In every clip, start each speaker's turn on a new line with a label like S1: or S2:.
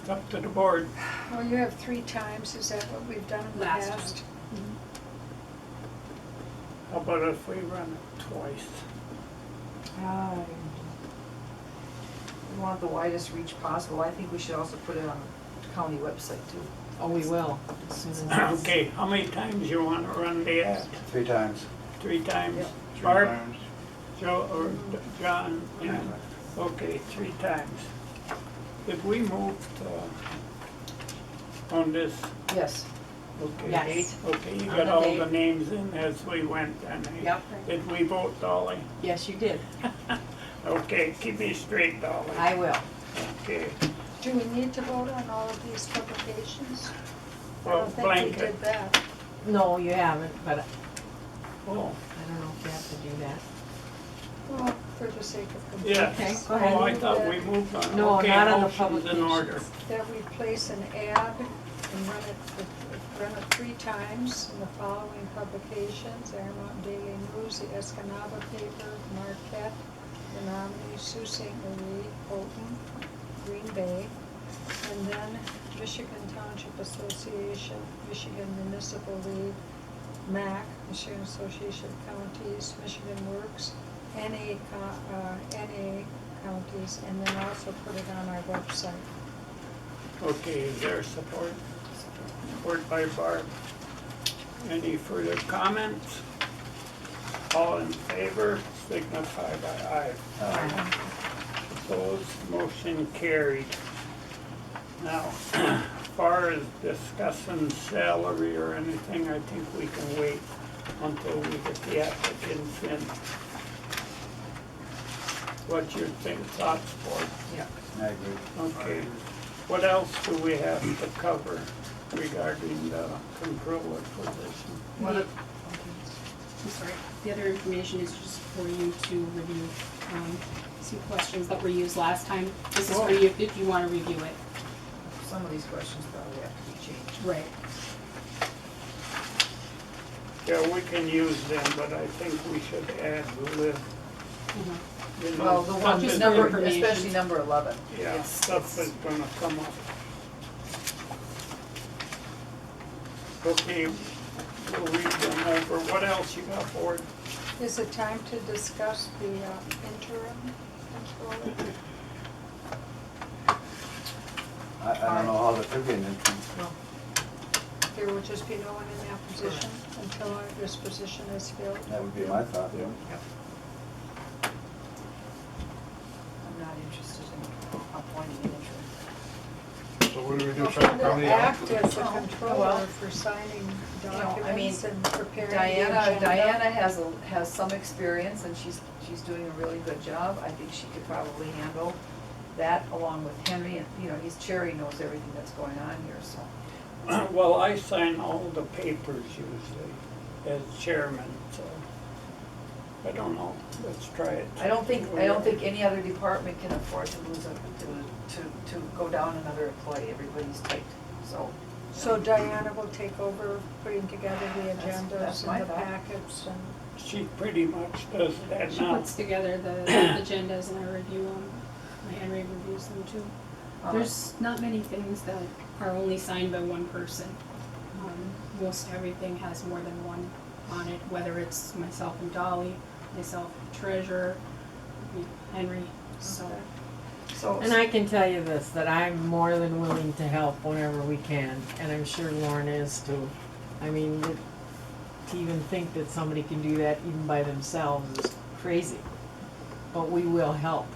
S1: It's up to the board.
S2: Well, you have three times, is that what we've done in the
S3: Last
S2: past?
S1: How about if we run it twice?
S4: Uh, We want the widest reach possible. I think we should also put it on the county website too.
S5: Oh, we will, as soon as. it's-
S1: Okay, how many times you wanna run the ad?
S6: Three times.
S1: Three times?
S4: Yep.
S6: Three
S1: Barb,
S6: times.
S1: Joe, or D- John? and- Okay, three times. If we moved, uh, on this,
S4: Yes.
S1: okay?
S5: Yes.
S1: Okay, you
S5: On
S1: got
S5: the
S1: all
S5: date.
S1: the names in as we went, and I-
S5: Yep.
S1: Did we vote, Dolly?
S5: Yes, you did.
S1: Okay, keep me straight, Dolly.
S5: I will.
S1: Okay.
S2: Do we need to vote on all of these publications? I
S1: Well,
S2: don't think we
S1: blanket.
S2: did that.
S5: No, you haven't, but I
S1: Oh,
S5: don't know if you have to do that.
S2: Well, for the sake of completeness.
S5: Okay,
S1: yes.
S5: go ahead.
S1: Oh, I thought we moved on.
S5: No,
S1: Okay,
S5: not on the
S1: motion's in order.
S5: publications.
S2: That we place an ad and run it, for- run it three times in the following publications, Aramont Daily News, the Escanaba Paper, Marquette, Menominee, Sault Ste. Marie, Houghton, Green Bay, and then Michigan Township Association, Michigan Municipal League, MAC, Michigan Association of Counties, Michigan Works, NA, co- uh, NA counties, and then also put it on our website.
S1: Okay, is there support? Support by Barb. Any further comments? All in favor, signify by aye. Aye. Opposed, motion carried. Now, far as discussing salary or anything, I think we can wait until we get the applicants in. What's your think, thoughts, board?
S4: Yeah.
S6: I agree.
S1: Okay, what else do we have to cover regarding the controller position?
S3: Well, the- I'm sorry, the other information is just for you to review, um, some questions that were used last time. This is for you, if you wanna review it.
S4: Some of these questions probably have to be changed.
S3: Right.
S1: Yeah, we can use them, but I think we should add the,
S3: Uh-huh.
S1: you know.
S4: Well, the one,
S1: something-
S3: Just
S4: number,
S3: information.
S4: especially number eleven.
S1: Yeah,
S4: It's-
S1: stuff is
S4: it's-
S1: gonna come up. Okay, we'll read them over. What else you got, board?
S2: Is it time to discuss the uh, interim controller?
S6: I, I don't know how the could be an entrance.
S4: No.
S2: There will just be no one in that position until our- this position is filled.
S6: That would be my thought.
S4: I'm not interested in appointing an interim.
S7: So what do we do, try to
S2: Will
S7: accommodate?
S2: act as the
S4: Oh,
S2: controller
S4: well.
S2: for signing
S4: You know, I mean,
S2: documents and preparing the
S4: Diana,
S2: agenda.
S4: Diana has, a has some experience and she's, she's doing a really good job. I think she could probably handle that along with Henry and, you know, he's, Cherry knows everything that's going on here, so.
S1: Well, I sign all the papers usually as chairman, so I don't know. Let's try it.
S4: I don't think, I don't think any other department can afford to lose a, to, to, to go down another employee, everybody's tight, so.
S2: So Diana will take over putting together the
S4: That's- that's
S2: agendas
S4: my
S2: and the
S4: thought.
S2: packets and,
S1: She pretty much does that
S3: She
S1: now.
S3: puts together the agendas and I review them, and Henry reviews them too.
S4: um,
S3: There's not many things that are only signed by one person. Um, Most everything has more than one on it, whether it's myself and Dolly, myself and treasurer, you know, Henry, so.
S4: So,
S5: And I can tell you this, that I'm more than willing to help whenever we can, and I'm sure Lauren is too. I mean, th- to even think that somebody can do that even by themselves is crazy, but we will help.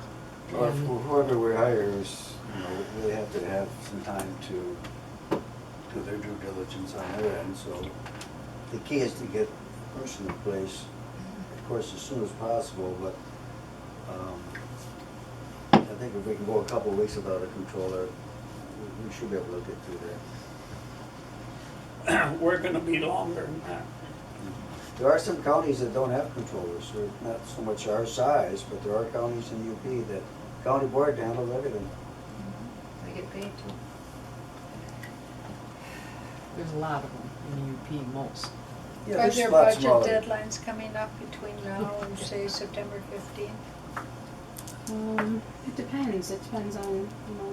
S6: Or whoever we hire is, you know, they have to have some time to do their due diligence on their end, so the key is to get a person in place, of course, as soon as possible, but, um, I think if we can go a couple of weeks without a controller, we- we should be able to get through that.
S1: We're gonna be longer than that.
S6: There are some counties that don't have controllers, they're not so much our size, but there are counties in UP that county board handles everything.
S4: They get paid too.
S5: There's a lot of them in UP most.
S6: Yeah,
S2: are
S6: there's
S2: there
S6: lots
S2: budget
S6: smaller.
S2: deadlines coming up between now and say September fifteenth?
S3: Um, it depends, it depends on, you know,